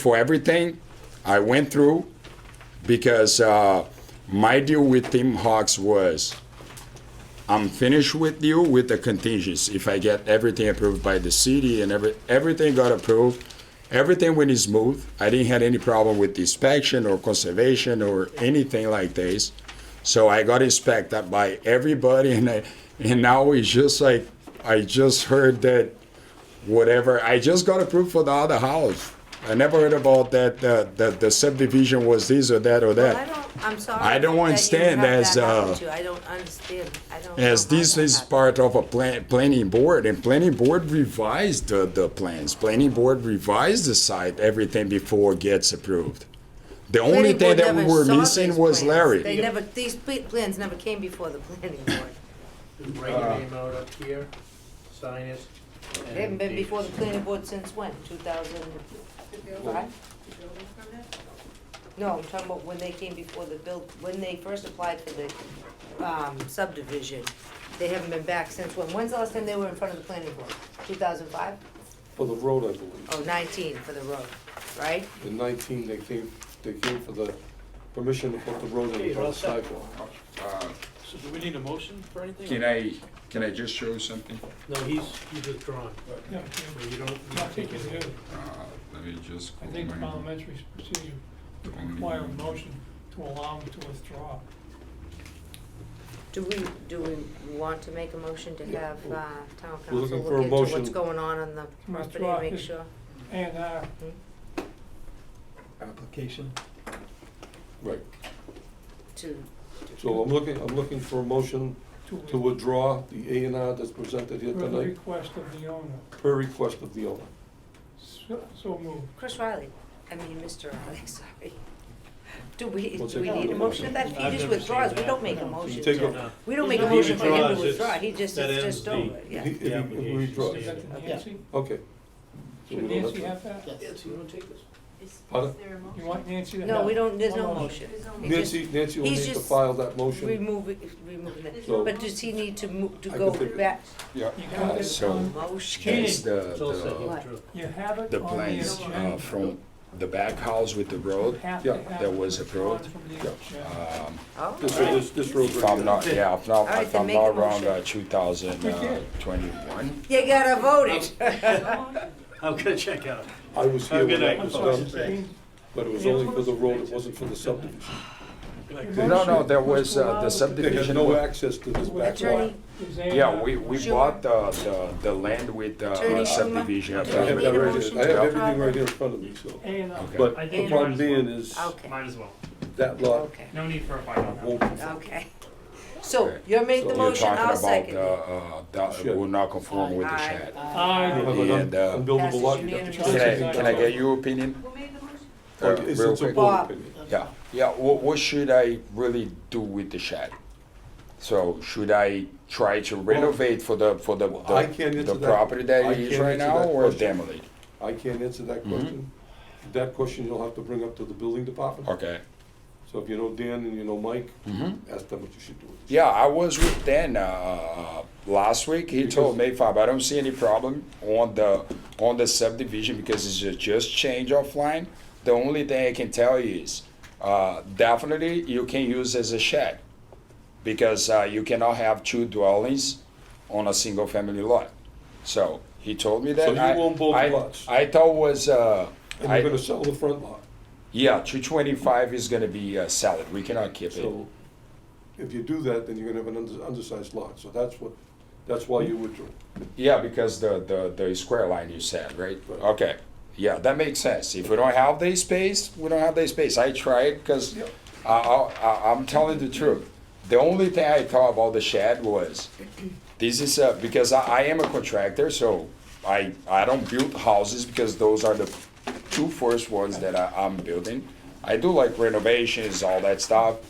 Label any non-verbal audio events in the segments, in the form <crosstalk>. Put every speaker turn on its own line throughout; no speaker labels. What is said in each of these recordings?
for everything I went through because uh, my deal with Tim Hawks was I'm finished with you with the contingency. If I get everything approved by the city and every, everything got approved, everything went smooth. I didn't have any problem with inspection or conservation or anything like this. So I got inspected by everybody, and I, and now it's just like I just heard that whatever. I just got approved for the other house. I never heard about that. Uh, the the subdivision was this or that or
Well, I
that.
don't, I'm sorry.
I don't
that you
understand
have
as,
that happen
uh,
to you. I don't understand. I don't.
As
know how
this
that
is
happened.
part of a plan, planning board, and planning board revised the, the plans. Planning board revised the site, everything before it gets approved. The only
Planning
thing
board
that we
never
were
saw
missing
these
was
plans. They
Larry.
never, these pl- plans never came before the planning board.
Write
Uh,
your name out up here, sign it. and
They haven't been
date
before the
it.
planning board since when, two thousand five? No, I'm talking about when they came before the build, when they first applied for the, um, subdivision. They haven't been back since when? When's the last time they were in front of the planning board? Two thousand five?
For the road, I believe.
Oh, nineteen for the road, right?
The nineteen, they came, they came for the permission to put the road in
Okay,
the
you're all set.
front sidewalk.
So do we need a motion for anything?
I, can I just show you something?
No, he's, he's withdrawn,
Yeah,
so you don't, you
I
don't
think
take
it's
it.
good.
Uh, Let me just.
I think parliamentary procedure would require a motion to allow him to withdraw.
Do we, do we want to make a motion to have uh, town council
We're looking for
look
a
into what's
motion.
going on on the property
Withdraw
and make
his-
sure?
A and R,
application.
Right,
To,
so I'm looking, I'm looking for a motion to
to
withdraw the A and R that's presented here
with the
tonight
request of the owner.
per request of the owner.
So so moved.
Chris Riley, I mean, Mr. Riley, <laughs> sorry. Do we,
What's
do we
it
need a
called?
motion to that? He
I've
just
never
withdraws,
seen
we
that.
don't make a
No.
motion
You take
to,
a-
No.
we don't
If
make a
he
motion for him
withdraws,
to
it's-
withdraw, he just,
that
it's
ends
just
the-
over,
If
yeah.
he- if he- if he withdraws.
Is that the
Yeah.
Nancy?
Okay. So we
Should
don't have
Nancy
to-
have that?
Yes, you wanna take this?
Pardon?
You want Nancy to have?
No, we don't, there's no
One
motion. It just
Nancy, Nancy will
he's
need to
just-
file that motion.
Remove, it- remove that.
So-
But does he need to mo, to
I can
go
take it.
back?
You got it
So-
on,
Motion.
That's the,
It's all set,
the,
withdraw.
you have it
the
on the
plans uh,
agenda.
from the back house with the
You
road.
have
yeah,
to have
that
it
was
withdrawn
approved.
from the agenda.
Um,
Oh,
This, this, this road
If
right
I'm
here.
not, yeah, if
All
not,
right,
if
then
I'm
make a
not wrong,
motion.
uh, 2021.
you gotta vote it.
I'm gonna check out.
I was
Have a
here
good
when that
night.
was
Sorry.
done,
Okay.
but it was only for the road, it wasn't for the subdivision.
No, no, there was,
Was
uh, the
allowed to-
They had
subdivision,
no
wa-
access to this back lot.
Attorney,
Is A and
yeah,
R-
we, we
Schumer.
bought the, the, the land with the uh,
Attorney
subdivision.
Schumer,
I
do
approved.
you need a motion
have that right here, I
to
have
withdraw?
everything right here in front of me, so.
A and R.
But
I
the
think
problem
might as well.
being is,
Okay,
Might as well.
that lot
okay.
No need for a final. now.
won't
Okay. So
Okay.
you made the
So
You're
motion, I'll
talking
second it.
about, uh, uh, that
Sure.
uh, will not conform with the
Aye.
shed.
Aye.
have an
And, uh,
unbuildable
Passes
lot. you have to
unanimously.
change
Can I,
it.
can I get your opinion?
Or
Uh,
is
real
it
quick.
support opinion?
Yeah, yeah, what, what should I really do with the shed? So should I try to renovate for the, for the,
Well, I can't
the
answer
the
that.
property
I
that it is
can't
right
answer
now
that
or
question.
demolish?
I can't answer that
Mm-hmm.
question. That question you'll have to bring up to the building department.
Okay.
So if you know Dan and you know Mike,
Mm-hmm.
ask them what you should do. with it.
Yeah, I was with Dan uh, last week. He told me, Fab, I don't see any problem on the on the subdivision because it's ju- just change of line. The only thing I can tell you is uh, definitely you can use as a shed because uh, you cannot have two dwellings on a single family lot. So he told me that.
So you
I,
own both
I,
lots?
I thought was uh,
And
I-
you're gonna sell the front lot.
yeah, two twenty five is gonna be uh, salad. We cannot keep it.
So if you do that, then you're gonna have an under- undersized lot. So that's what, that's why you withdrew.
Yeah, because the, the, the square line you said, right?
Right.
Okay, yeah, that makes sense. If we don't have the space, we don't have the space. I tried because
Yep.
I, I, I- I'm telling the truth. The only thing I thought about the shed was, this is, a- because I, I am a contractor, so I, I don't build houses because those are the two first ones that I, I'm building. I do like renovations, all that stuff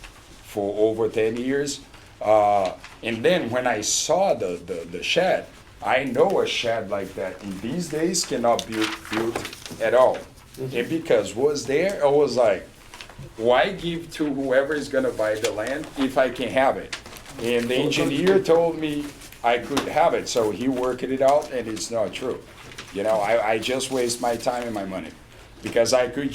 for over 10 years. Uh, and then when I saw the, the, the shed, I know a shed like that in these days cannot be built at all. And because was there, I was like, why give to whoever is gonna buy the land if I can have it? And the engineer told me I could have it, so he worked it out, and it's not true. You know, I, I just waste my time and my money. Because I could